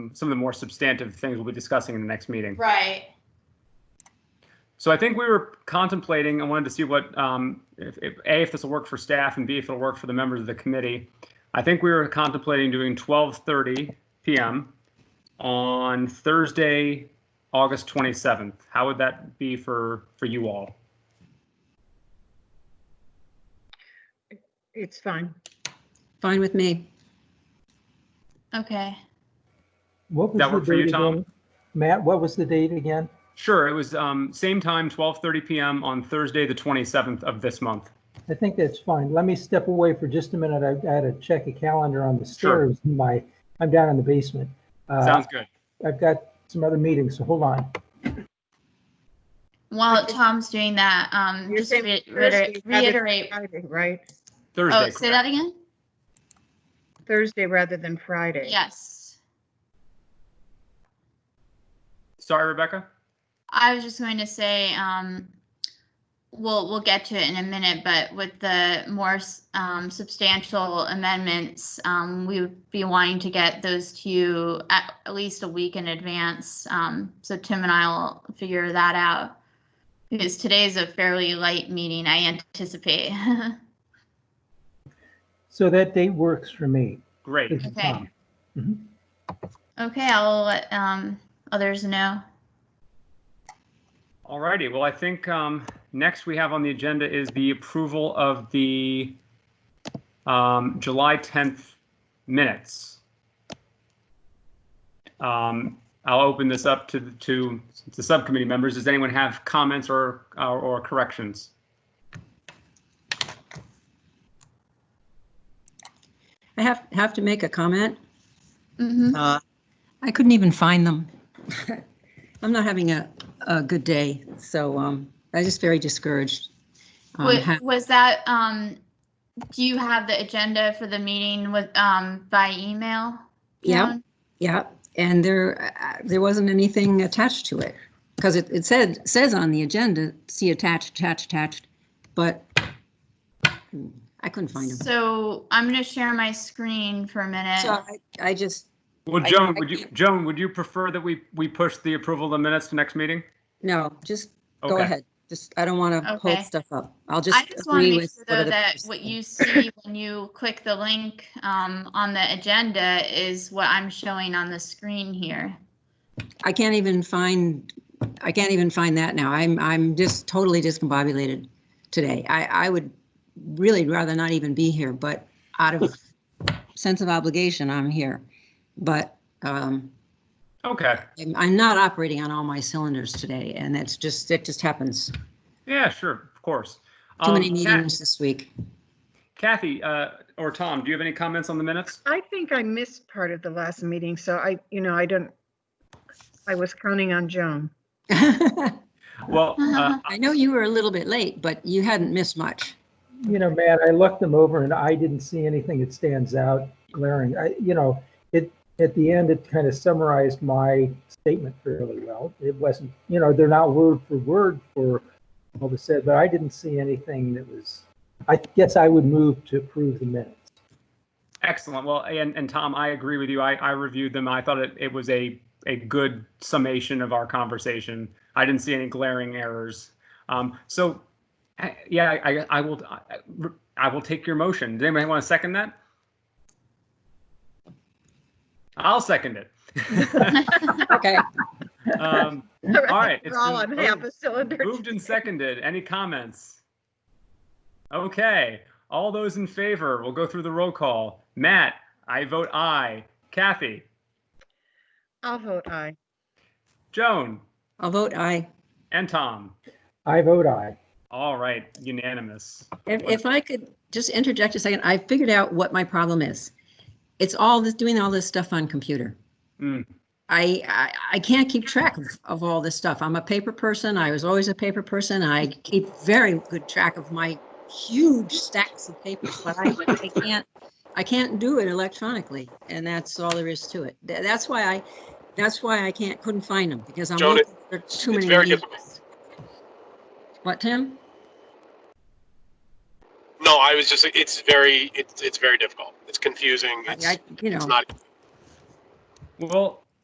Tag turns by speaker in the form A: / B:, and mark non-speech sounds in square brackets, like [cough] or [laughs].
A: some of the more substantive things we'll be discussing in the next meeting.
B: Right.
A: So I think we were contemplating, I wanted to see what, um, if, if, A, if this will work for staff, and B, if it'll work for the members of the committee. I think we were contemplating doing 12:30 PM on Thursday, August 27th. How would that be for, for you all?
C: It's fine.
D: Fine with me.
B: Okay.
E: What was
A: That
E: the
A: work for you,
E: date
A: Tom?
E: again? Matt, what was the date again?
A: Sure, it was um, same time, 12:30 PM on Thursday, the 27th of this month.
E: I think that's fine. Let me step away for just a minute. I've got to check a calendar on the
A: Sure.
E: stairs. in My, I'm down in the basement.
B: Uh-huh.
E: Uh,
A: Sounds good.
E: I've got some other meetings, so hold on.
B: While Tom's doing that, um,
C: You're
B: just
C: saying
B: re-
C: Thursday,
B: reiter-
C: rather than
B: reiterate.
C: Friday, Right?
A: Thursday,
B: Oh, say that
A: correct.
B: again?
C: Thursday rather than Friday.
B: Yes.
A: Sorry, Rebecca?
B: I was just going to say, um, we'll, we'll get to it in a minute, but with the more, s- um, substantial amendments, um, we would be wanting to get those to you at, at least a week in advance. Um, so Tim and I will figure that out. Because today's a fairly light meeting, I anticipate. [laughs]
E: So that date works for me.
A: Great.
E: This is Mm-hmm.
B: Okay.
E: Tom.
B: Okay, I'll let, um, others know.
A: All righty, well, I think um, next we have on the agenda is the approval of the um, July 10th minutes. Um, I'll open this up to, to the subcommittee members. Does anyone have comments or, or or corrections?
D: I have, have to make a comment.
B: Mhm.
D: Uh, I couldn't even find them. [laughs] I'm not having a, a good day, so um, I'm just very discouraged. on
B: Wa-
D: ha-
B: Was that, um, do you have the agenda for the meeting with, um, by email?
D: Yeah.
B: Dawn?
D: Yeah, and there, uh, there wasn't anything attached to it. Because it, it said, says on the agenda, see attached, attached, attached, but I couldn't find them.
B: So I'm gonna share my screen for a minute.
D: So I, I just,
A: Well,
D: I-
A: Joan,
D: I
A: would you,
D: can't-
A: Joan, would you prefer that we, we push the approval of the minutes to next meeting?
D: no, just go
A: Okay.
D: ahead. Just, I don't want to
B: Okay.
D: hold stuff up. I'll
B: I
D: just
B: just want to
D: agree
B: make
D: with.
B: sure though
D: whatever
B: that
D: person-
B: what you see when you click the link, um, on the agenda is what I'm showing on the screen here.
D: I can't even find, I can't even find that now. I'm, I'm just totally discombobulated today. I, I would really rather not even be here, but out of sense of obligation, I'm here. But um,
A: Okay,
D: I'm, I'm not operating on all my cylinders today, and that's just, it just happens.
A: yeah, sure, of course.
D: Too
A: Um,
D: many
A: Kath-
D: meetings this week. [laughs]
A: Kathy, uh, or Tom, do you have any comments on the minutes?
C: I think I missed part of the last meeting, so I, you know, I don't, I was counting on Joan.
D: I
A: Well, uh,
D: know you were a little bit late, but you hadn't missed much.
E: You know, Matt, I looked them over and I didn't see anything that stands out glaring. I, you know, it, at the end, it kind of summarized my statement fairly well. It wasn't, you know, they're not word for word for what was said, but I didn't see anything that was, I guess I would move to approve the minutes.
A: Excellent. Well, and, and Tom, I agree with you. I, I reviewed them. I thought it, it was a, a good summation of our conversation. I didn't see any glaring errors. Um, so, I- yeah, I, I- I will, I- I will take your motion. Does anybody want to second that? I'll second it.
D: Okay.
A: Um, All right, it's
C: We're [laughs] all on
A: been
C: half
A: moved-
C: a cylinder.
A: Moved and seconded. Any comments? Okay, all those in favor, we'll go through the roll call. Matt, I vote aye. Kathy,
C: I'll vote aye.
A: Joan,
D: I'll vote aye.
A: and Tom.
E: I vote aye.
A: All right, unanimous.
D: If, if I could just interject a second, I figured out what my problem is. It's all this, doing all this stuff on computer.
F: Hmm.
A: Mm.
D: I, I, I can't keep track of, of all this stuff. I'm a paper person. I was always a paper person. I keep very good track of my huge stacks of papers, but I, I can't, I can't do it electronically. And that's all there is to it. Tha- That's why I, that's why I can't, couldn't find them because I'm
F: Joan,
D: looking for too
F: it's
D: many.
F: very
D: meetings. What, Tim?
F: No, I was just, it's very, it's, it's very difficult. It's confusing.
D: I,
F: It's,
D: I- you know,
F: it's not,
A: Well,